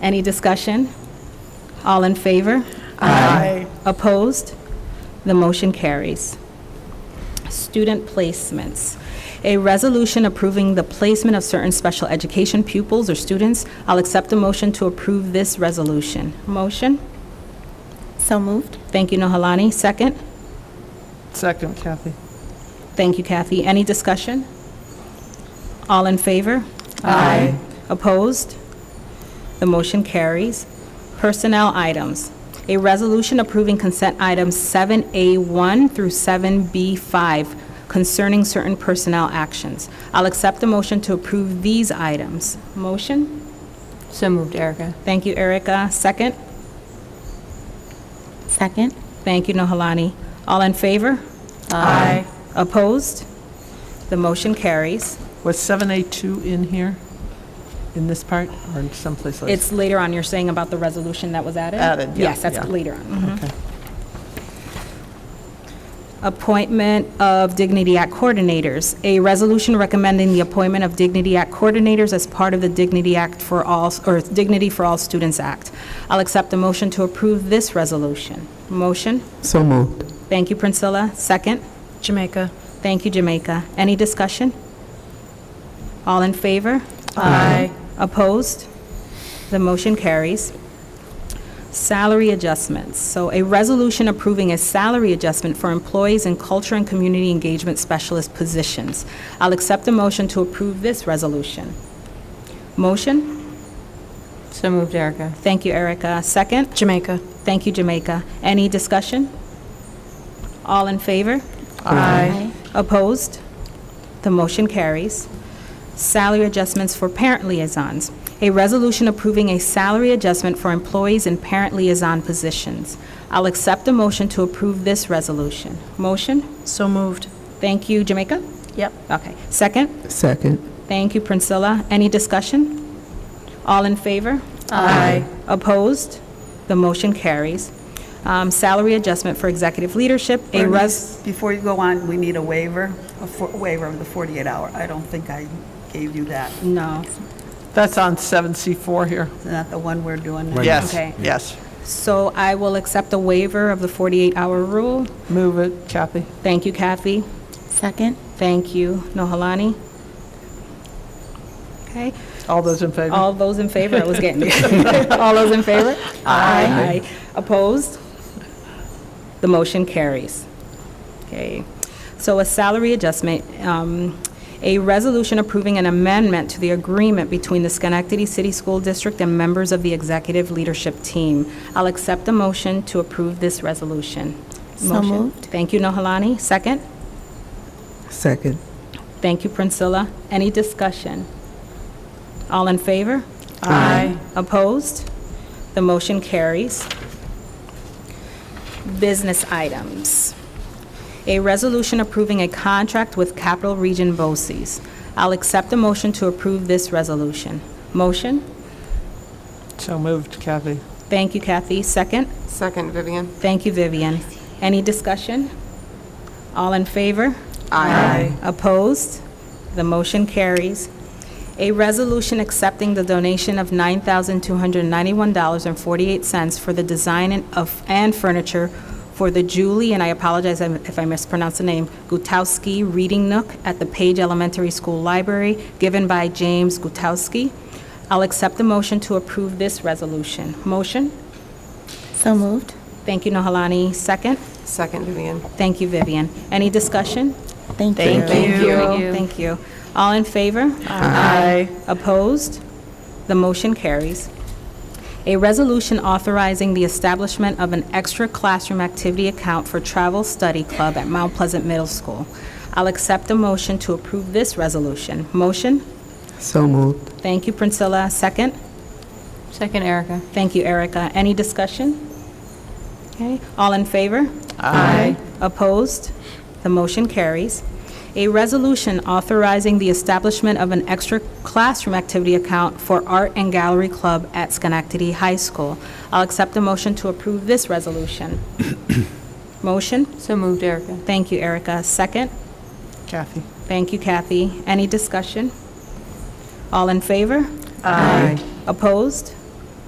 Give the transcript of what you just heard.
Any discussion? All in favor? Aye. Opposed? The motion carries. Student placements. A resolution approving the placement of certain special education pupils or students. I'll accept a motion to approve this resolution. Motion? So moved. Thank you, Nohalani. Second? Second, Kathy. Thank you, Kathy. Any discussion? All in favor? Aye. Opposed? The motion carries. Personnel items. A resolution approving consent items 7A1 through 7B5 concerning certain personnel actions. I'll accept a motion to approve these items. Motion? So moved, Erica. Thank you, Erica. Second? Second. Thank you, Nohalani. All in favor? Aye. Opposed? The motion carries. Was 7A2 in here, in this part, or in someplace else? It's later on, you're saying about the resolution that was added? Added, yeah, Yes, that's yeah. later on. mhm. Okay. Appointment of Dignity Act Coordinators. A resolution recommending the appointment of Dignity Act Coordinators as part of the Dignity Act for All, or Dignity for All Students Act. I'll accept a motion to approve this resolution. Motion? So moved. Thank you, Priscilla. Second? Jamaica. Thank you, Jamaica. Any discussion? All in favor? Aye. Opposed? The motion carries. Salary adjustments. So a resolution approving a salary adjustment for employees in culture and community engagement specialist positions. I'll accept a motion to approve this resolution. Motion? So moved, Erica. Thank you, Erica. Second? Jamaica. Thank you, Jamaica. Any discussion? All in favor? Aye. Opposed? The motion carries. Salary adjustments for parent liaisons. A resolution approving a salary adjustment for employees in parent liaison positions. I'll accept a motion to approve this resolution. Motion? So moved. Thank you, Jamaica? Yep. Okay. Second? Second. Thank you, Priscilla. Any discussion? All in favor? Aye. Opposed? The motion carries. Um, Salary adjustment for executive leadership. A res... Before you go on, we need a waiver, a fo- waiver of the 48 hour. I don't think I gave you that. No. That's on 7C4 here. Isn't that the one we're doing now? Yes, Okay. yes. So I will accept a waiver of the 48-hour rule. Move it, Kathy. Thank you, Kathy. Second. Thank you, Nohalani. Okay, All those in favor? all those in favor, I was getting there. All those in favor? Aye. Opposed? The motion carries. Okay, so a salary adjustment, um, a resolution approving an amendment to the agreement between the Schenectady City School District and members of the executive leadership team. I'll accept a motion to approve this resolution. So Motion. moved. Thank you, Nohalani. Second? Second. Thank you, Priscilla. Any discussion? All in favor? Aye. Opposed? The motion carries. Business items. A resolution approving a contract with Capital Region BOCES. I'll accept a motion to approve this resolution. Motion? So moved, Kathy. Thank you, Kathy. Second? Second, Vivian. Thank you, Vivian. Any discussion? All in favor? Aye. Opposed? The motion carries. A resolution accepting the donation of $9,291.48 for the design and of- and furniture for the Julie, and I apologize if I mispronounce the name, Gutowski Reading Nook at the Page Elementary School Library, given by James Gutowski. I'll accept the motion to approve this resolution. Motion? So moved. Thank you, Nohalani. Second? Second, Vivian. Thank you, Vivian. Any discussion? Thank you. Thank you. Thank you. All in favor? Aye. Opposed? The motion carries. A resolution authorizing the establishment of an extra classroom activity account for Travel Study Club at Mount Pleasant Middle School. I'll accept a motion to approve this resolution. Motion? So moved. Thank you, Priscilla. Second? Second, Erica. Thank you, Erica. Any discussion? Okay, all in favor? Aye. Opposed? The motion carries. A resolution authorizing the establishment of an extra classroom activity account for Art and Gallery Club at Schenectady High School. I'll accept a motion to approve this resolution. Motion? So moved, Erica. Thank you, Erica. Second? Kathy. Thank you, Kathy. Any discussion? All in favor? Aye. Opposed?